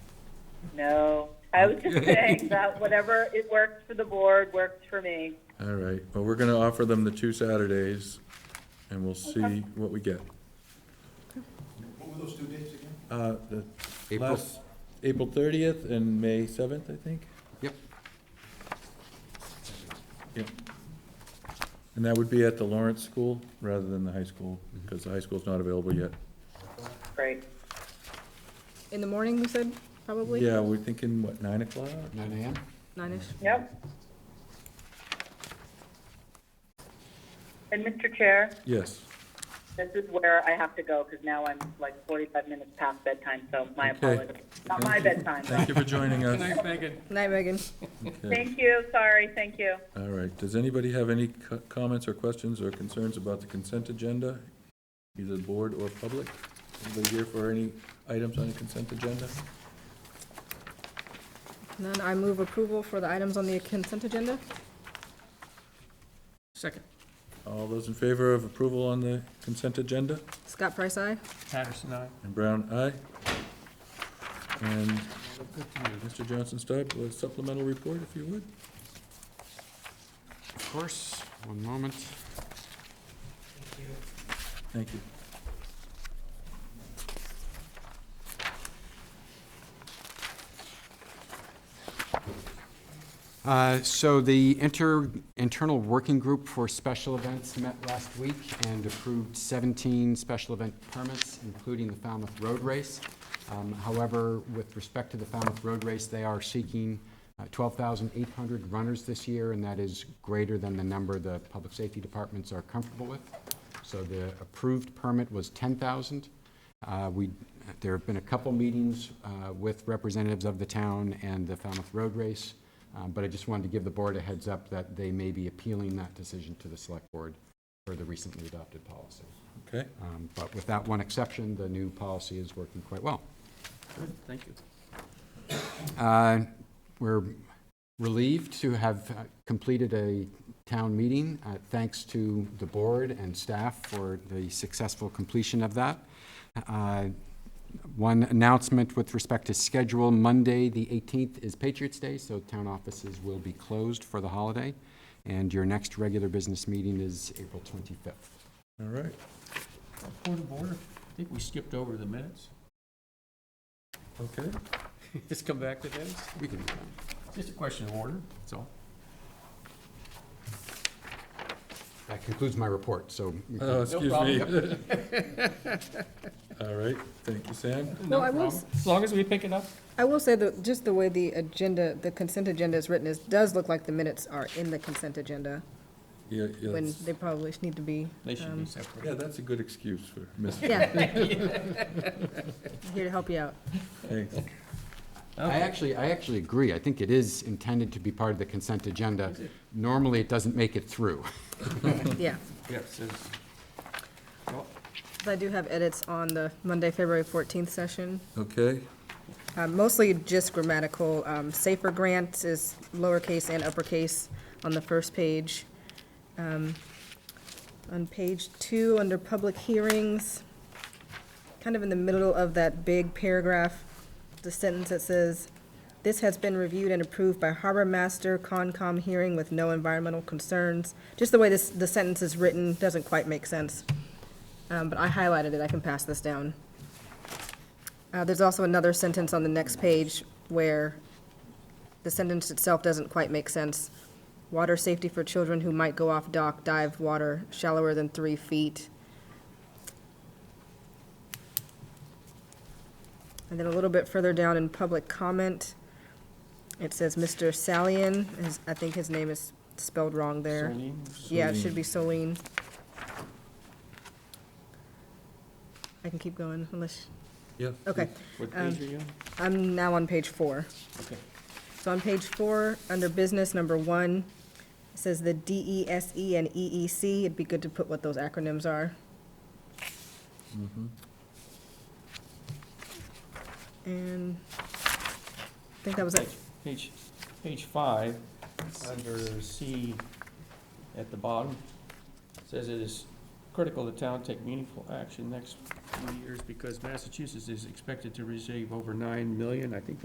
No, I was just saying that whatever it works for the board, works for me. All right, well, we're gonna offer them the two Saturdays, and we'll see what we get. What were those two dates again? Uh, the April, last, April thirtieth and May seventh, I think? yep, Yep. And that would be at the Lawrence School rather than the high school, because the high school's not available yet. Great. In the morning, we said, probably? Yeah, we're thinking, what, nine o'clock? nine AM. Nine-ish. Yep. And Mr. Chair, Yes. this is where I have to go because now I'm like 45 minutes past bedtime, so my Okay. apologies. Not my bedtime, Thank but you for joining us. Night, Megan. Okay. thank you, sorry, thank you. All right, does anybody have any co- comments or questions or concerns about the consent agenda? Either board or public? Anybody here for any items on the consent agenda? None, I move approval for the items on the consent agenda. Second. All those in favor of approval on the consent agenda? Scott Price, aye. Patterson, aye. And Brown, aye. And Mr. Johnson Stipe, a supplemental report, if you would. Of course, one moment. Thank you. Uh, So the inter, internal working group for special events met last week and approved 17 special event permits, including the Falmouth Road Race. Um, However, with respect to the Falmouth Road Race, they are seeking uh, 12,800 runners this year, and that is greater than the number the public safety departments are comfortable with. So the approved permit was 10,000. Uh, We, there have been a couple meetings uh, with representatives of the town and the Falmouth Road Race, uh, but I just wanted to give the board a heads up that they may be appealing that decision to the select board for the recently adopted policy. Okay, Um, But with that one exception, the new policy is working quite well. Good, thank you. Uh, We're relieved to have uh, completed a town meeting. Uh, Thanks to the board and staff for the successful completion of that. Uh, One announcement with respect to schedule, Monday, the 18th is Patriots' Day, so town offices will be closed for the holiday. And your next regular business meeting is April 25th. all right. Point of order, I think we skipped over the minutes. Okay, Just come back to this. We can, Just a question of order, that's all. that concludes my report, so. we can- oh, excuse me. All right, thank you, Sam. No, I will, s- problem. As long as we pick it up. I will say that just the way the agenda, the consent agenda is written is, does look like the minutes are in the consent agenda, Yeah, yeah, when that's- they probably need to be. They should um, be yeah, separate. that's a good excuse for missing. Yeah. Here to help you out. Thanks. I actually, I actually agree. I think it is intended to be part of the consent agenda. Normally, it doesn't make it through. Yeah. Yes, it's- well, But I do have edits on the Monday, February 14th session. Okay, Uh, Mostly just grammatical. Um, Safer grant is lowercase and uppercase on the first page. Um, On page two, under public hearings, kind of in the middle of that big paragraph, the sentence that says, "This has been reviewed and approved by Harbor Master Concom hearing with no environmental concerns." Just the way this, the sentence is written doesn't quite make sense. Um, But I highlighted it. I can pass this down. Uh, there's also another sentence on the next page where the sentence itself doesn't quite make sense. Water safety for children who might go off dock, dive water shallower than three feet. And then a little bit further down in public comment, it says Mr. Salian, his, I think his name is spelled wrong there. Celine, Yeah, it should be Celine. I can keep going unless, yeah. okay. What Um, page are you on? I'm now on page four. Okay. So on page four, under business number one, it says the DESE E and EEC. It'd be good to put what those acronyms are. And I think that was it. Page, page five, under C at the bottom, says it is critical the town take meaningful action next few years because Massachusetts is expected to receive over nine million, I think